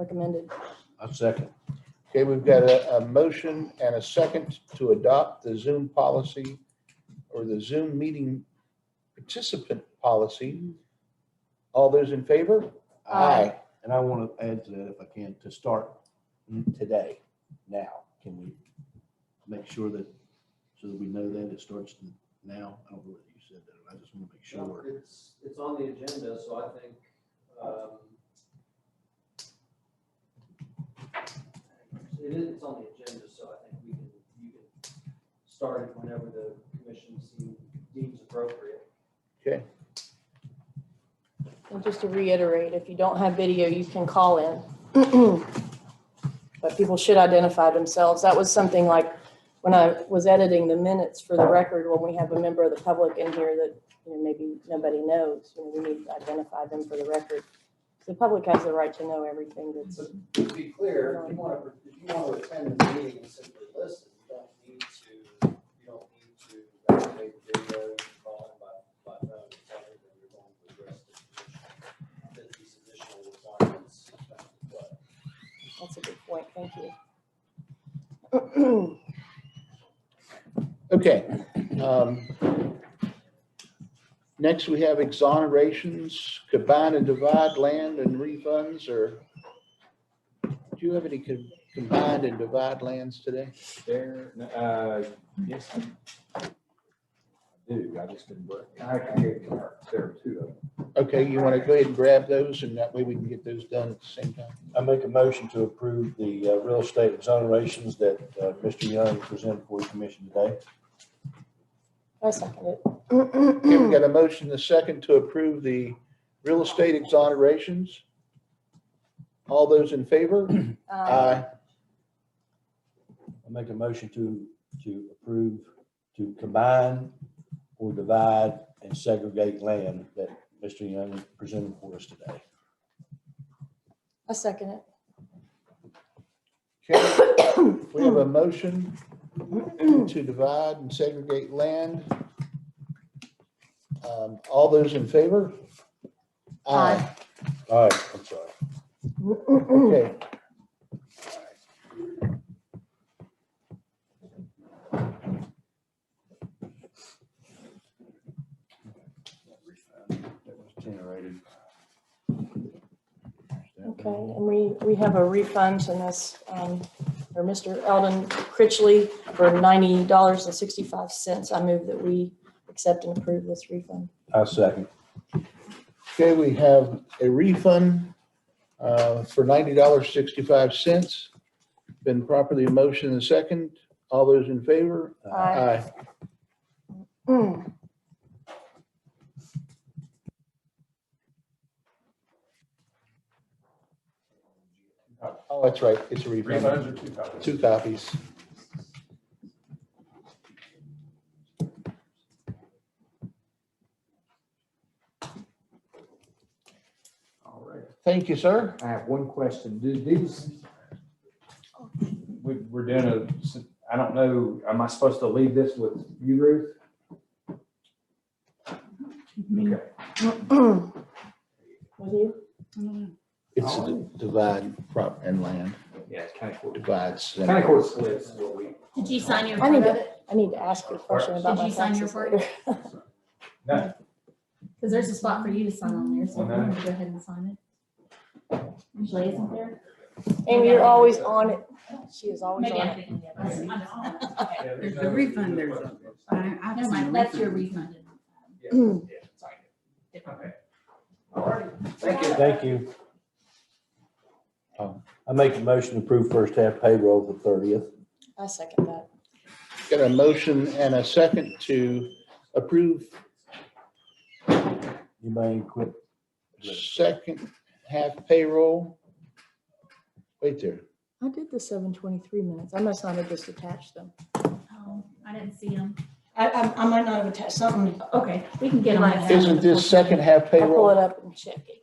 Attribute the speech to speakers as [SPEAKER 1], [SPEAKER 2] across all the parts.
[SPEAKER 1] recommended.
[SPEAKER 2] A second. Okay, we've got a, a motion and a second to adopt the Zoom policy or the Zoom meeting participant policy. All those in favor?
[SPEAKER 1] Aye.
[SPEAKER 2] And I want to add to that if I can, to start today, now. Can we make sure that, so that we know that it starts now? I don't know whether you said that. I just want to make sure.
[SPEAKER 3] It's, it's on the agenda, so I think, um, it is, it's on the agenda, so I think we can, you can start it whenever the commission seem- deems appropriate.
[SPEAKER 1] And just to reiterate, if you don't have video, you can call in. But people should identify themselves. That was something like when I was editing the minutes for the record, when we have a member of the public in here that, you know, maybe nobody knows, you know, we need to identify them for the record. The public has the right to know everything that's,
[SPEAKER 3] To be clear, if you want to, if you want to attend the meeting and simply listen, you don't need to, you don't need to activate the video and call in by, by phone. It's something that you're going to address the commission, that these additional requirements. uh,
[SPEAKER 1] that's a good point. Thank you.
[SPEAKER 2] Okay. um, Next, we have exonerations, combine and divide land and refunds, or do you have any com- combined and divide lands today?
[SPEAKER 4] There, n- uh, yes. I Do, I just didn't work. I can get there too.
[SPEAKER 2] Okay, you want to go ahead and grab those, and that way we can get those done at the same time?
[SPEAKER 5] I make a motion to approve the uh, real estate exonerations that uh, Mr. Young presented for the commission today.
[SPEAKER 1] I second it.
[SPEAKER 2] Okay, we got a motion, the second, to approve the real estate exonerations. All those in favor?
[SPEAKER 1] Uh,
[SPEAKER 5] I make a motion to, to approve, to combine or divide and segregate land that Mr. Young presented for us today.
[SPEAKER 1] I second it.
[SPEAKER 2] Okay, we have a motion to divide and segregate land. Um, All those in favor?
[SPEAKER 1] Aye.
[SPEAKER 5] All right, I'm sorry.
[SPEAKER 2] Okay.
[SPEAKER 5] That was generated.
[SPEAKER 1] Okay, and we, we have a refund from this, um, or Mr. Eldon Critchley for ninety dollars and sixty-five cents. I move that we accept and approve this refund.
[SPEAKER 5] I second.
[SPEAKER 2] Okay, we have a refund uh, for $90.65. Been properly motioned and second. All those in favor?
[SPEAKER 1] Aye. Mm,
[SPEAKER 2] Oh, that's right, it's a
[SPEAKER 4] Three
[SPEAKER 2] refund.
[SPEAKER 4] phones or two copies?
[SPEAKER 2] Two copies.
[SPEAKER 4] All right.
[SPEAKER 2] Thank you, sir.
[SPEAKER 4] I have one question. Do these, we, we're doing a, I don't know, am I supposed to leave this with you, Ruth? Okay.
[SPEAKER 1] With you?
[SPEAKER 2] It's a d- divide prop and land,
[SPEAKER 4] Yeah, it's kind of cool.
[SPEAKER 2] divides.
[SPEAKER 4] Kind of cool splits is what we,
[SPEAKER 6] Did you sign your
[SPEAKER 1] I need
[SPEAKER 6] part of
[SPEAKER 1] to,
[SPEAKER 6] it?
[SPEAKER 1] I need to ask you a question about
[SPEAKER 6] Did
[SPEAKER 1] my
[SPEAKER 6] you sign your
[SPEAKER 1] taxes
[SPEAKER 6] part?
[SPEAKER 1] later.
[SPEAKER 4] no,
[SPEAKER 6] Because there's a spot for you to sign on there, so I'm
[SPEAKER 4] Well, no.
[SPEAKER 6] gonna go ahead and sign it. Usually isn't there?
[SPEAKER 1] And you're always on it. She is always
[SPEAKER 6] Maybe
[SPEAKER 1] on
[SPEAKER 6] I'm
[SPEAKER 1] it.
[SPEAKER 6] thinking the other one.
[SPEAKER 4] yeah,
[SPEAKER 7] There's
[SPEAKER 4] no-
[SPEAKER 7] the refund, there's a- I- I've
[SPEAKER 6] Never
[SPEAKER 7] seen
[SPEAKER 6] mind, that's
[SPEAKER 7] refunds.
[SPEAKER 6] your refunded.
[SPEAKER 4] Yeah, yeah, it's like it. Okay. All right, thank you.
[SPEAKER 5] Thank you. Um, I make a motion to approve first half payroll of the thirtieth.
[SPEAKER 1] I second that.
[SPEAKER 2] Got a motion and a second to approve
[SPEAKER 5] You may quit.
[SPEAKER 2] second half payroll. Wait there.
[SPEAKER 1] I did the seven twenty-three minutes. I must not have just attached them.
[SPEAKER 6] Oh, I didn't see them.
[SPEAKER 7] I, I, I might not have attached something.
[SPEAKER 6] Okay, we can get them.
[SPEAKER 7] Right.
[SPEAKER 6] out.
[SPEAKER 2] Isn't this second half
[SPEAKER 1] I'll pull it
[SPEAKER 2] payroll?
[SPEAKER 1] up and check it.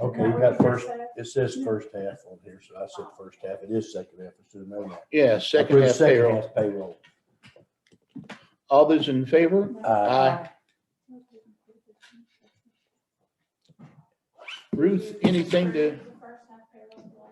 [SPEAKER 5] Okay, you got first, it says first half on here, so I said first half. It is second half. It's in there now.
[SPEAKER 2] Yeah, second half payroll.
[SPEAKER 5] half payroll.
[SPEAKER 2] All those in favor?
[SPEAKER 5] Uh,
[SPEAKER 2] Aye. Ruth, anything to